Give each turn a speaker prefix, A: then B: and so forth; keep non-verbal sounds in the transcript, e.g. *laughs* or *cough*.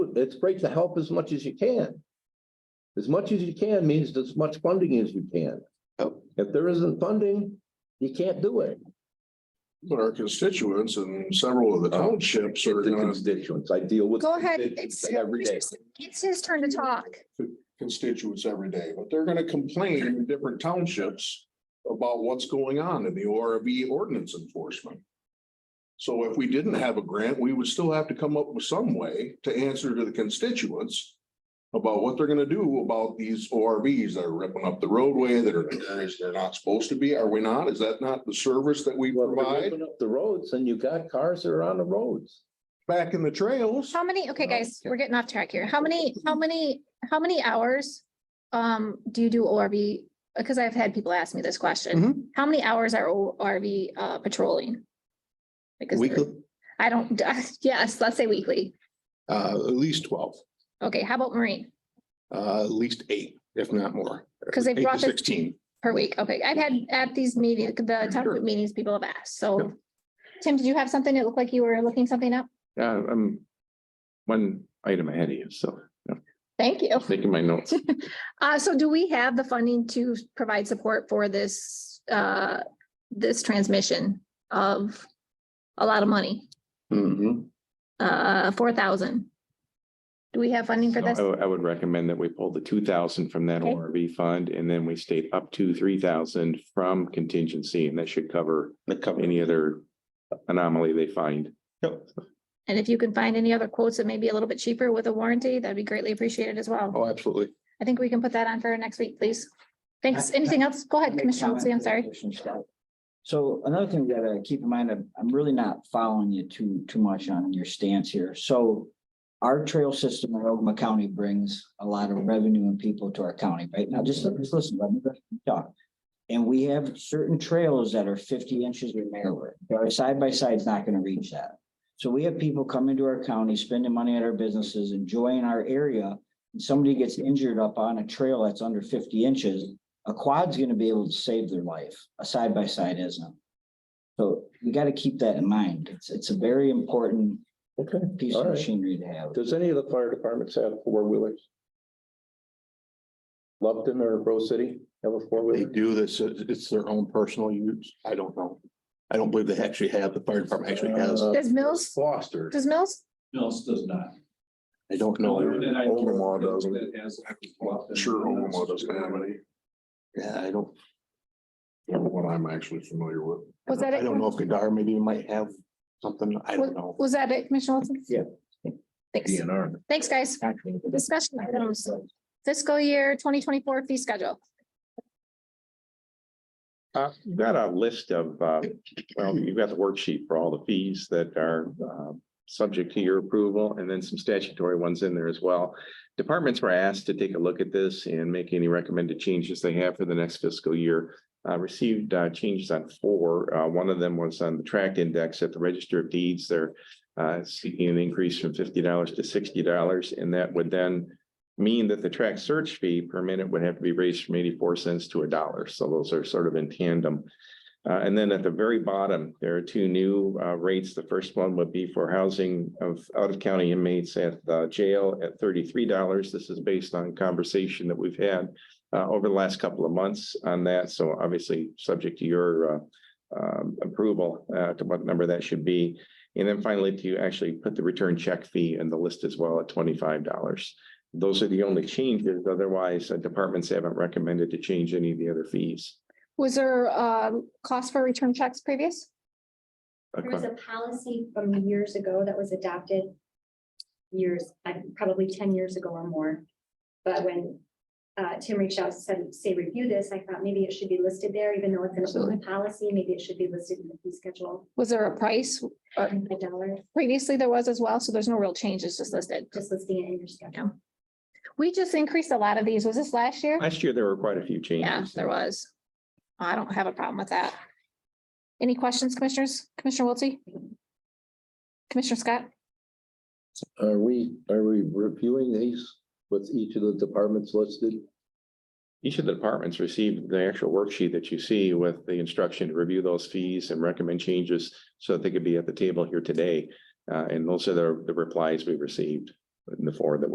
A: do. It's great to help as much as you can. As much as you can means as much funding as you can.
B: Yep.
A: If there isn't funding, you can't do it.
C: But our constituents and several of the
B: Oh.
C: townships are
A: The
C: gonna,
A: constituents, I deal with.
D: Go ahead.
A: constituents Every day.
D: It's his turn to talk.
C: constituents every day, but they're gonna complain in different townships about what's going on in the ORV ordinance enforcement. So if we didn't have a grant, we would still have to come up with some way to answer to the constituents about what they're gonna do about these ORVs that are ripping up the roadway, that are, in areas they're not supposed to be, are we not? Is that not the service that we
A: Well, if they're
C: provide
A: ripping up The roads and you got cars that are on the roads.
C: back in the trails?
D: How many, okay,
A: No.
D: guys, we're getting off track here. How many, how many, how many hours um do you do ORV? Because I've had people ask me
C: Mhm.
D: this
B: Mm-hmm.
D: question. How many hours are ORV uh patrolling? Because they're-
B: Weekly,
D: I don't, *laughs* yes, let's say weekly.
B: uh, at least twelve,
D: Okay, how about Marine?
B: uh, at least eight, if not more.
D: 'Cause they
B: Eight to
D: brought this-
B: Sixteen.
D: Per week, okay. I've had at these meetings, the town
B: Sure.
D: meetings, people have asked, so.
B: Yep.
D: Tim, did you have something? It looked like you were looking something up.
E: Yeah, I'm one item ahead of you, so
D: Thank you.
E: taking my notes.
D: Uh, so do we have the funding to provide support for this, uh, this transmission of a lot of money,
C: Mm-hmm.
B: Mhm.
D: uh, four thousand? Do we have funding for
E: So
D: this?
E: I, would- I would recommend that we pull the two thousand from that
D: Okay.
E: ORV fund and then we state up to three thousand from contingency and that should cover
B: That cover-
E: any other anomaly they find.
D: And if you can find any other quotes that may be a little bit cheaper with a warranty, that'd be greatly appreciated as well.
B: Oh, absolutely.
D: I think we can put that on for next week, please. Thanks. Anything else? Go ahead,
F: Make
D: Commissioner
F: comment
D: Wiltse, I'm
F: to
D: sorry.
F: Commissioner Scott. So another thing we gotta keep in mind, I'm, I'm really not following you too, too much on your stance here. So our trail system in Ogama County brings a lot of revenue and people to our county, right? Now, just, just listen, let me talk. And we have certain trails that are fifty inches or narrower. Our side by side's not gonna reach that. So we have people coming to our county, spending money at our businesses, enjoying our area. And somebody gets injured up on a trail that's under fifty inches, a quad's gonna be able to save their life, a side by side isn't. So we gotta keep that in mind, it's, it's a very important
A: Okay.
F: piece
A: All
F: of
A: right.
F: machinery to have.
A: Does any of the fire departments have four wheelers? Lupton or Rose City have a four
B: They
A: wheeler?
B: do this, it's it's their own personal use. I don't know. I don't believe they actually have, the fire department
C: Uh,
B: actually has.
D: Does Mills,
A: Foster.
D: does Mills?
G: Mills does not.
B: I don't know.
G: And I-
C: Omaha doesn't.
G: That has-
C: I'm Sure, Omaha doesn't have any,
B: Yeah, I don't,
C: from what I'm actually familiar with.
D: Was that
B: I
D: it?
B: don't know if Gadar maybe might have something. I don't know.
D: Was that it, Commissioner Wilson?
F: Yeah.
D: Thanks. Thanks, guys. Discussion items. Fiscal year twenty twenty-four fee schedule.
E: Uh, you got a list of, uh, well, you've got the worksheet for all the fees that are, um, subject to your approval and then some statutory ones in there as well. Departments were asked to take a look at this and make any recommended changes they have for the next fiscal year. I received, uh, changes on four. Uh, one of them was on the tract index at the register of deeds. They're, uh, seeking an increase from fifty dollars to sixty dollars and that would then mean that the track search fee per minute would have to be raised from eighty-four cents to a dollar. So those are sort of in tandem. Uh, and then at the very bottom, there are two new uh, rates. The first one would be for housing of out-of-county inmates at the jail at thirty-three dollars. This is based on conversation that we've had uh, over the last couple of months on that. So obviously, subject to your uh, um, approval uh, to what number that should be. And then finally, to actually put the return check fee in the list as well at twenty-five dollars. Those are the only changes. Otherwise, uh, departments haven't recommended to change any of the other fees.
D: Was there uh cost for return checks previous?
H: There was a policy from years ago that was adopted years, I- probably ten years ago or more. But when uh, Tim reached out and said, say, review this, I thought maybe it should be listed there, even though it's an open policy, maybe it should be listed in the fee schedule.
D: Was there a price? Uh,
H: A dollar,
D: Previously, there was as well, so there's no real changes just listed.
H: just listing it in your schedule.
D: We just increased a lot of these. Was this last year?
E: Last year, there were quite a few
D: Yeah,
E: changes.
D: there was. I don't have a problem with that. Any questions, commissioners? Commissioner Wiltie? Commissioner Scott?
A: Are we, are we reviewing these with each of the departments listed?
E: Each of the departments received the actual worksheet that you see with the instruction to review those fees and recommend changes so that they could be at the table here today. Uh, and those are the, the replies we received. the four that